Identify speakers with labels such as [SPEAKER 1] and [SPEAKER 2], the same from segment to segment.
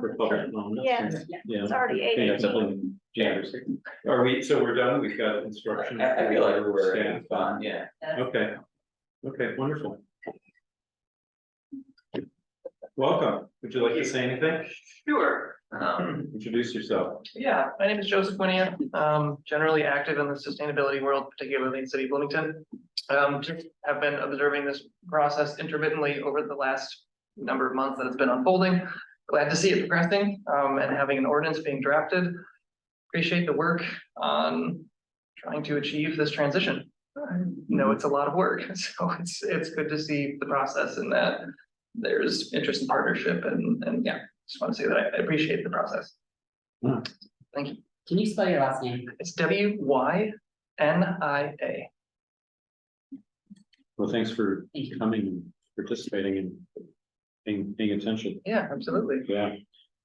[SPEAKER 1] for public comment.
[SPEAKER 2] Yes,
[SPEAKER 1] Yeah.
[SPEAKER 2] it's already
[SPEAKER 1] I think
[SPEAKER 2] eight.
[SPEAKER 1] that's something, January second. Are we, so we're done, we've got instruction.
[SPEAKER 3] I, I feel like we're
[SPEAKER 1] Staff.
[SPEAKER 3] in fun, yeah.
[SPEAKER 1] Okay, okay, wonderful. Welcome, would you like to say anything?
[SPEAKER 4] Sure, um,
[SPEAKER 1] Introduce yourself.
[SPEAKER 4] yeah, my name is Joseph Winia, um, generally active in the sustainability world, particularly in city of Bloomington. Um, just have been observing this process intermittently over the last number of months that it's been unfolding. Glad to see it progressing, um, and having an ordinance being drafted. Appreciate the work on trying to achieve this transition. I know it's a lot of work, so it's, it's good to see the process and that there's interest in partnership and, and yeah, just want to say that I- I appreciate the process. Thank you.
[SPEAKER 5] Can you spell your last name?
[SPEAKER 4] It's W Y N I A.
[SPEAKER 1] Well, thanks for
[SPEAKER 5] Thank you.
[SPEAKER 1] coming and participating and being, being attention,
[SPEAKER 4] Yeah, absolutely.
[SPEAKER 1] yeah.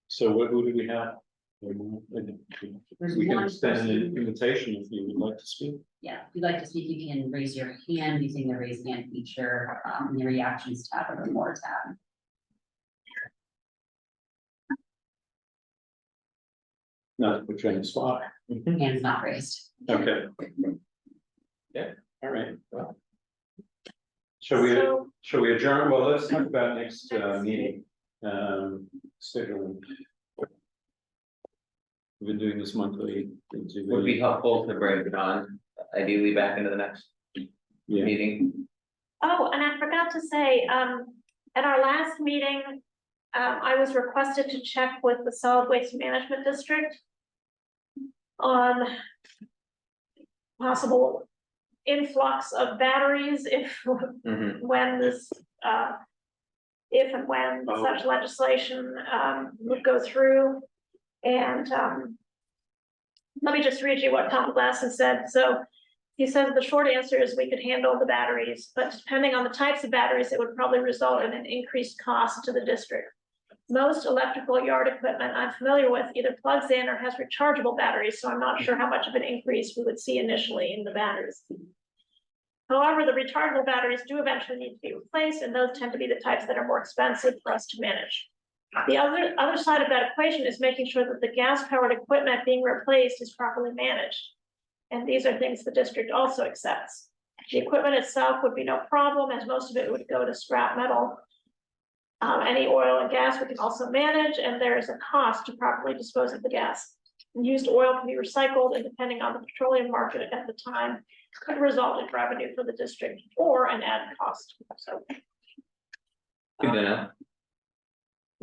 [SPEAKER 1] So what, who do we have?
[SPEAKER 5] There's
[SPEAKER 1] We can
[SPEAKER 5] one
[SPEAKER 1] extend an
[SPEAKER 5] person-
[SPEAKER 1] invitation if you would like to speak.
[SPEAKER 5] Yeah, if you'd like to speak, you can raise your hand using the raise hand feature, um, in the reactions tab or the more tab.
[SPEAKER 1] Not to put you on the spot.
[SPEAKER 3] Mm-hmm.
[SPEAKER 5] Hands not raised.
[SPEAKER 1] Okay. Yeah, all right, well. Shall we,
[SPEAKER 2] So,
[SPEAKER 1] shall we adjourn? Well, let's talk about next uh meeting, um, scheduling. We've been doing this monthly. it's a
[SPEAKER 3] Would be
[SPEAKER 1] really-
[SPEAKER 3] helpful to bring John ideally back into the next
[SPEAKER 1] Yeah.
[SPEAKER 3] meeting.
[SPEAKER 2] Oh, and I forgot to say, um, at our last meeting, um, I was requested to check with the solid waste management district on possible influx of batteries if,
[SPEAKER 3] Mhm.
[SPEAKER 2] when this, uh, if and when
[SPEAKER 1] Oh.
[SPEAKER 2] such legislation, um, would go through. And, um, let me just read you what Tom Glasson said. So he says the short answer is we could handle the batteries, but depending on the types of batteries, it would probably result in an increased cost to the district. Most electrical yard equipment I'm familiar with either plugs in or has rechargeable batteries, so I'm not sure how much of an increase we would see initially in the batteries. However, the rechargeable batteries do eventually need to be replaced, and those tend to be the types that are more expensive for us to manage. The other, other side of that equation is making sure that the gas-powered equipment being replaced is properly managed. And these are things the district also accepts. The equipment itself would be no problem, as most of it would go to scrap metal. Um, any oil and gas we can also manage, and there is a cost to properly dispose of the gas. Used oil can be recycled, and depending on the petroleum market at the time, could result in revenue for the district or an added cost. So
[SPEAKER 3] Good to know.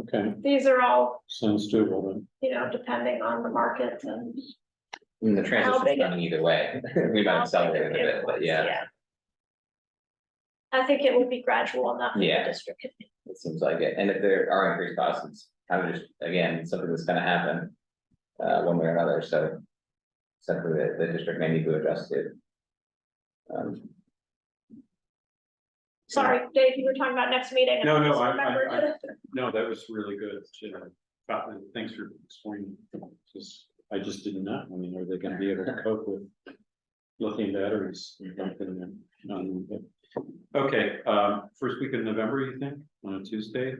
[SPEAKER 1] Okay,
[SPEAKER 2] these are all,
[SPEAKER 1] sounds doable then.
[SPEAKER 2] you know, depending on the market and.
[SPEAKER 1] Mm-hmm.
[SPEAKER 3] And the transition's
[SPEAKER 2] big-
[SPEAKER 3] running either way. We might accelerate it a bit, but yeah,
[SPEAKER 2] I think it would be gradual enough in the
[SPEAKER 3] Yeah.
[SPEAKER 2] district.
[SPEAKER 3] it seems like it. And if there are increased costs, it's kind of just, again, something that's gonna happen. Uh, one way or another, so. Something that the district may need to adjust to. Um,
[SPEAKER 2] Sorry, Dave, you were talking about next meeting. and
[SPEAKER 1] No, no,
[SPEAKER 2] just
[SPEAKER 1] I- I-
[SPEAKER 2] remembered.
[SPEAKER 1] I- No, that was really good, you know, Scotland, thanks for explaining. Just, I just didn't know, I mean, are they gonna be able to cope with lithium batteries? back in there? No, but- Okay, um, first week of November, you think, on a Tuesday?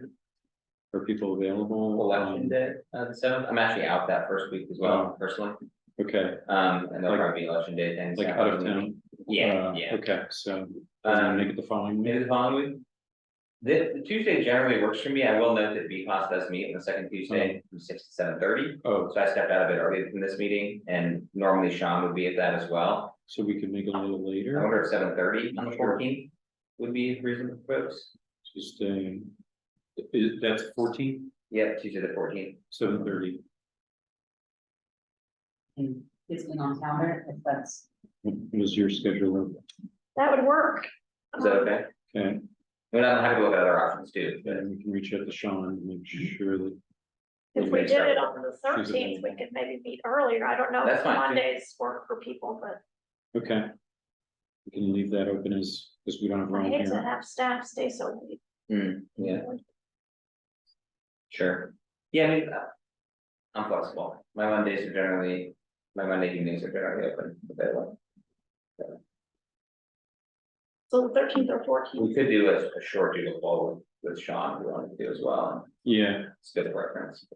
[SPEAKER 1] Are people available? Um,
[SPEAKER 3] election day, uh, the seventh, I'm actually out that first week as well, personally.
[SPEAKER 1] Um, Okay,
[SPEAKER 3] Um, and that'll
[SPEAKER 1] Like-
[SPEAKER 3] probably be election day things.
[SPEAKER 1] like out of town?
[SPEAKER 3] Yeah,
[SPEAKER 1] Uh,
[SPEAKER 3] yeah.
[SPEAKER 1] Okay, so, um, make
[SPEAKER 3] Um,
[SPEAKER 1] it the following
[SPEAKER 3] maybe
[SPEAKER 1] week,
[SPEAKER 3] the following week. The the Tuesday generally works for me. I will note that BCOS does meet on the second Tuesday from six to seven thirty.
[SPEAKER 1] oh,
[SPEAKER 3] So I stepped out of it early from this meeting and normally Sean would be at that as well.
[SPEAKER 1] so we can make it a little
[SPEAKER 3] I
[SPEAKER 1] later,
[SPEAKER 3] wonder if seven thirty on the fourteenth would be reasonable for folks.
[SPEAKER 1] just, um, is, that's fourteen,
[SPEAKER 3] Yeah, Tuesday the fourteenth.
[SPEAKER 1] seven thirty.
[SPEAKER 5] And it's been on calendar, if that's.
[SPEAKER 1] Was your schedule,
[SPEAKER 2] That would work.
[SPEAKER 3] Is that okay?
[SPEAKER 1] okay,
[SPEAKER 3] And I'm happy to look at other options too. but-
[SPEAKER 1] then we can reach out to Sean and make sure that,
[SPEAKER 2] If we did it on the thirteenth, we could maybe meet earlier. I don't know
[SPEAKER 3] That's
[SPEAKER 2] if
[SPEAKER 3] fine, too.
[SPEAKER 2] Mondays work for people, but
[SPEAKER 1] okay. We can leave that open as, because we don't have
[SPEAKER 2] I
[SPEAKER 1] Ron
[SPEAKER 2] hate to
[SPEAKER 1] here.
[SPEAKER 2] have staff stay so late.
[SPEAKER 3] Hmm, yeah. Sure. Yeah, I mean, uh, I'm flexible. My Mondays are generally, my Monday evenings are generally open, available.
[SPEAKER 2] So the thirteenth or fourteenth,
[SPEAKER 3] We could do a, a short doodle poll with Sean, if we wanted to do as well, and
[SPEAKER 1] Yeah,
[SPEAKER 3] it's good reference.